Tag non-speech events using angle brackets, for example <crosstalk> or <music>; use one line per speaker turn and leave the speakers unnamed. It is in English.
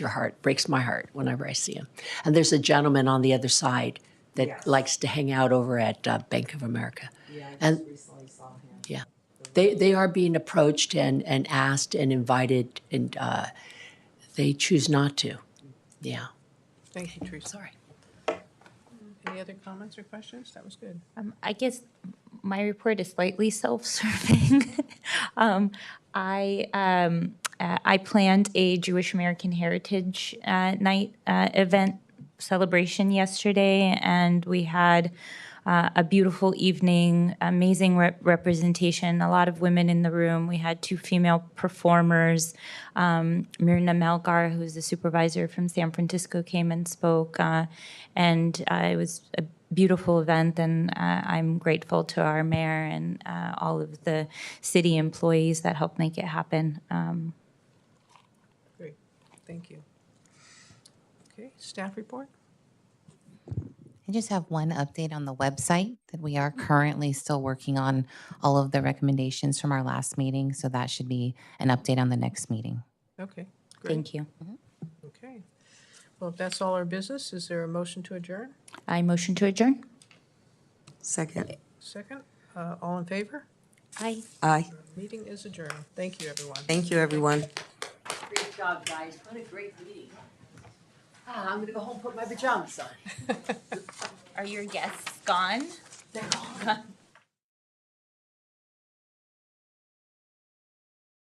your heart, breaks my heart whenever I see him. And there's a gentleman on the other side that
Yes.
likes to hang out over at uh, Bank of America.
Yeah, I
And-
just recently saw him.
Yeah. They, they are being approached and, and asked and invited, and uh, they choose not to. Yeah.
Thank you, Teresa.
Sorry.
Any other comments or questions? That was good.
Um, I guess my report is slightly self-serving. <laughs> um, I um, uh, I planned a Jewish American Heritage uh, Night uh, event celebration yesterday, and we had uh, a beautiful evening, amazing rep- representation, a lot of women in the room. We had two female performers. Um, Mirna Melgar, who's the supervisor from San Francisco, came and spoke, uh, and uh, it was a beautiful event. And uh, I'm grateful to our mayor and uh, all of the city employees that helped make it happen. Um,
Great. Thank you. Okay, staff report?
I just have one update on the website that we are currently still working on all of the recommendations from our last meeting. So that should be an update on the next meeting.
Okay, great. Mm-hmm.
thank you.
Okay. Well, if that's all our business, is there a motion to adjourn?
I motion to adjourn.
Second.
Second, Uh, all in favor?
Aye.
Aye.
Meeting is adjourned. Thank you, everyone.
Thank you, everyone.
Great job, guys. What a great meeting. I'm going to go home and put my pajamas on.
Are your guests gone? They're all gone.